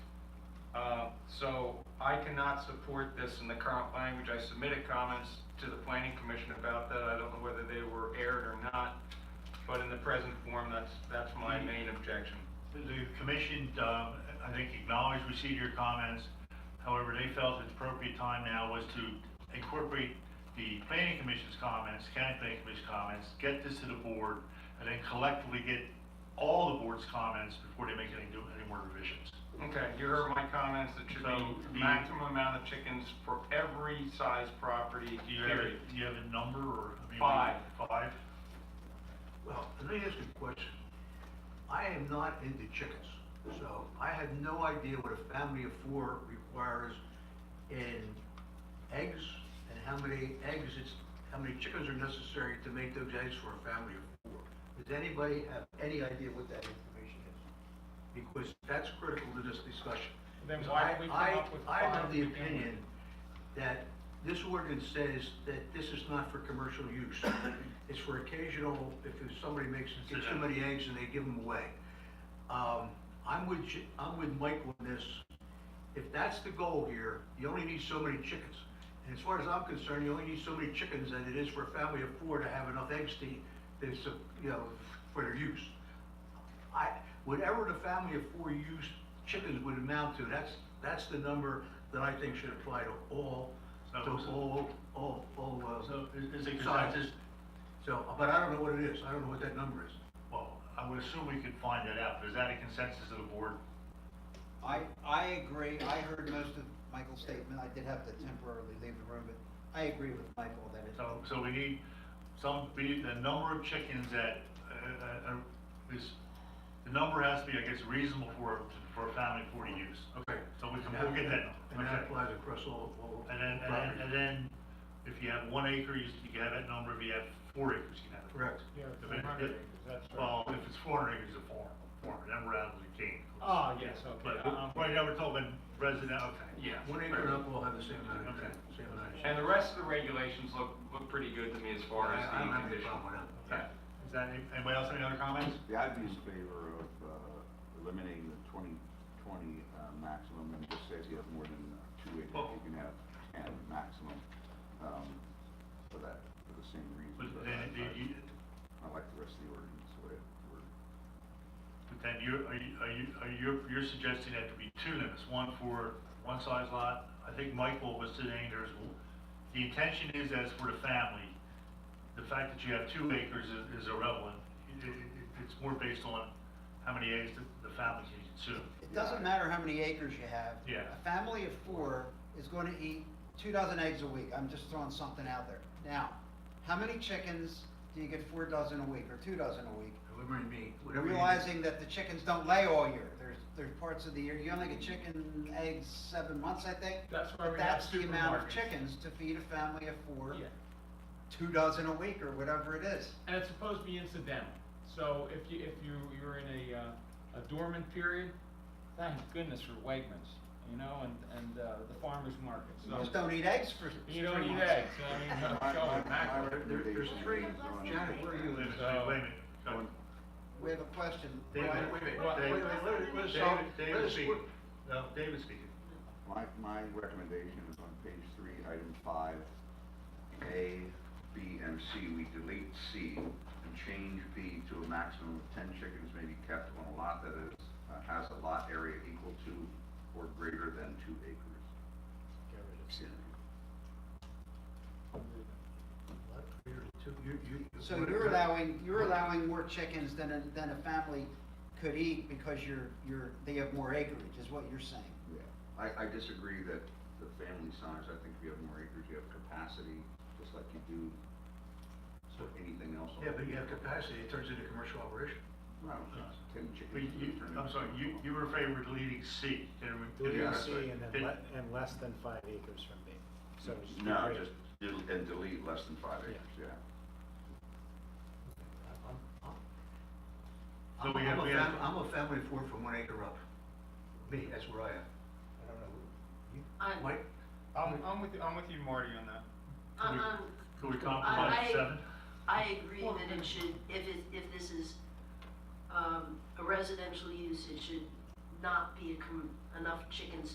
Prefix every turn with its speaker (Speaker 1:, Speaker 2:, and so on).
Speaker 1: Uh, So I cannot support this in the current language. I submitted comments to the planning commission about that. I don't know whether they were aired or not, but in the present form, that's, that's my
Speaker 2: Mm.
Speaker 1: main objection.
Speaker 2: The commission, um, I think acknowledged, received your comments. However, they felt it's appropriate time now was to incorporate the planning commission's comments, county planning commission's comments, get this to the board, and then collectively get all the board's comments before they make any, do any more revisions.
Speaker 1: Okay, you heard my comments. It should
Speaker 2: So mm.
Speaker 1: be
Speaker 2: the-
Speaker 1: maximum amount of chickens for every size property,
Speaker 2: Do you have, a-
Speaker 1: period.
Speaker 2: do you have a number or? I mean,
Speaker 1: Five.
Speaker 2: Five?
Speaker 3: Well, let me ask you a question. I am not into chickens, so I have no idea what a family of four requires in eggs and how many eggs it's, how many chickens are necessary to make those eggs for a family of four. Does anybody have any idea what that information is? Because that's critical to this discussion.
Speaker 1: Then
Speaker 3: So
Speaker 1: why
Speaker 3: I-
Speaker 1: don't we come
Speaker 3: I-
Speaker 1: up with
Speaker 3: I
Speaker 1: five
Speaker 3: am of the
Speaker 1: to begin with?
Speaker 3: opinion that this ordinance says that this is not for commercial use. It's for occasional, if somebody makes, gets too many eggs and they give them away. Um, I'm with, J- I'm with Mike on this. If that's the goal here, you only need so many chickens. And as far as I'm concerned, you only need so many chickens than it is for a family of four to have enough eggs to, to, su- you know, for their use. I, whatever the family of four used chickens would amount to, that's, that's the number that I think should apply to all, to
Speaker 2: So-
Speaker 3: all, all, all, uh,
Speaker 2: So is- is it
Speaker 3: Five.
Speaker 2: consensus?
Speaker 3: so, but I don't know what it is, I don't know what that number is.
Speaker 2: Well, I would assume we could find that out, but is that a consensus of the board?
Speaker 4: I, I agree, I heard most of Michael's statement, I did have to temporarily leave the room, but I agree with Michael that it's.
Speaker 2: So, so we need some, we need the number of chickens that, uh, uh, uh, is, the number has to be, I guess, reasonable for, for a family for to use. Okay, so we can, we'll get that
Speaker 3: And
Speaker 2: number, okay?
Speaker 3: that applies across all, all.
Speaker 2: And then, and then, and then, if you have one acre, you you can have that number, if you have four acres, you can have it.
Speaker 3: Correct.
Speaker 5: Yeah,
Speaker 2: If
Speaker 5: four
Speaker 2: it-
Speaker 5: hundred
Speaker 2: it-
Speaker 5: acres, that's right.
Speaker 2: Well, if it's four hundred acres, it's a farm, farm, then we're out of the game.
Speaker 5: Oh, yes, okay.
Speaker 2: But,
Speaker 5: I'm-
Speaker 2: right now, we're talking resident, okay.
Speaker 1: Yeah.
Speaker 3: One acre and up will have the same amount of,
Speaker 2: Okay.
Speaker 3: same amount of.
Speaker 1: And the rest of the regulations look, look pretty good to me as far as
Speaker 3: I- I don't
Speaker 1: the
Speaker 3: have any
Speaker 1: condition.
Speaker 3: problem with that.
Speaker 2: Okay. Is that, any- anybody else have any other comments?
Speaker 6: Yeah, I'd be in favor of uh, eliminating the twenty, twenty uh, maximum and just say if you have more than uh, two acres,
Speaker 2: Well-
Speaker 6: you can have ten maximum um, for that, for the same reason.
Speaker 2: But
Speaker 6: but
Speaker 2: then,
Speaker 6: I-
Speaker 2: do you,
Speaker 6: I I like the rest of the ordinance, the way it worded.
Speaker 2: But then you're, are you, are you, are you, you're suggesting that to be two limits, one for one size lot? I think Michael was saying there's, the intention is as for the family, the fact that you have two acres is, is irrelevant. It, it, it- it's more based on how many eggs the, the family can consume.
Speaker 4: It doesn't matter how many acres you have.
Speaker 2: Yeah.
Speaker 4: A family of four is gonna eat two dozen eggs a week, I'm just throwing something out there. Now, how many chickens do you get four dozen a week, or two dozen a week?
Speaker 3: Whatever you mean, whatever you.
Speaker 4: Realizing that the chickens don't lay all year, there's, there's parts of the year, you only get chicken eggs seven months, I think.
Speaker 5: That's why
Speaker 4: But
Speaker 5: we have
Speaker 4: that's the amount of
Speaker 5: supermarkets.
Speaker 4: chickens to feed a family of four.
Speaker 5: Yeah.
Speaker 4: two dozen a week or whatever it is.
Speaker 5: And it's supposed to be incidental. So if you, if you, you're in a, uh, a dormant period, thank goodness for Wegmans, you know, and, and, uh, the farmer's market,
Speaker 4: You just
Speaker 5: so.
Speaker 4: don't eat eggs for.
Speaker 5: You don't
Speaker 4: three
Speaker 5: eat
Speaker 4: months.
Speaker 5: eggs, I mean, show it
Speaker 6: My- my- my
Speaker 5: mackerel.
Speaker 3: There, there's
Speaker 6: recommendation
Speaker 3: three,
Speaker 6: is on-
Speaker 3: Janet, where are you?
Speaker 2: Wait a minute,
Speaker 5: So-
Speaker 2: wait a minute. So,
Speaker 4: We have a question.
Speaker 2: David,
Speaker 4: Brian,
Speaker 2: wait a minute,
Speaker 5: Well,
Speaker 2: David-
Speaker 3: wait, wait, let it- let it
Speaker 2: David-
Speaker 3: solve- let
Speaker 2: David
Speaker 3: it-
Speaker 2: speaking. No, David speaking.
Speaker 6: My, my recommendation is on page three, item five, A, B, and C, we delete C and change B to a maximum of ten chickens may be kept on a lot that is, uh, has a lot area equal to or greater than two acres.
Speaker 3: Two- you- you-
Speaker 4: So you're allowing, you're allowing more chickens than a, than a family could eat because you're, you're, they have more acreage is what you're saying.
Speaker 6: Yeah, I, I disagree that the family size, I think if you have more acres, you have capacity, just like you do for anything else.
Speaker 3: Yeah, but you have capacity, it turns into commercial operation.
Speaker 6: No, it's ten
Speaker 2: But
Speaker 6: chickens.
Speaker 2: you, I'm sorry, you, you were favored with deleting C. Did we- did we-
Speaker 6: Yeah,
Speaker 7: Deleting
Speaker 6: that's
Speaker 7: C
Speaker 6: right.
Speaker 7: and then
Speaker 2: Did-
Speaker 7: le- and less than five acres from B. So it's
Speaker 6: No,
Speaker 7: great.
Speaker 6: just, del- and delete less than five acres, yeah.
Speaker 2: So
Speaker 3: I'm
Speaker 2: we
Speaker 3: I'm
Speaker 2: have-
Speaker 3: a
Speaker 2: we have-
Speaker 3: fam, I'm a family of four from one acre up. Me, that's where I am. I don't know. You-
Speaker 8: I'm-
Speaker 3: Mike?
Speaker 1: I'm, I'm with, I'm with you, Marty, on that.
Speaker 2: Could we-
Speaker 8: Uh-uh.
Speaker 2: Could we compromise
Speaker 8: I- I-
Speaker 2: seven?
Speaker 8: I agree that it should, if it, if this is, um, a residential use, it should not be a com- enough chickens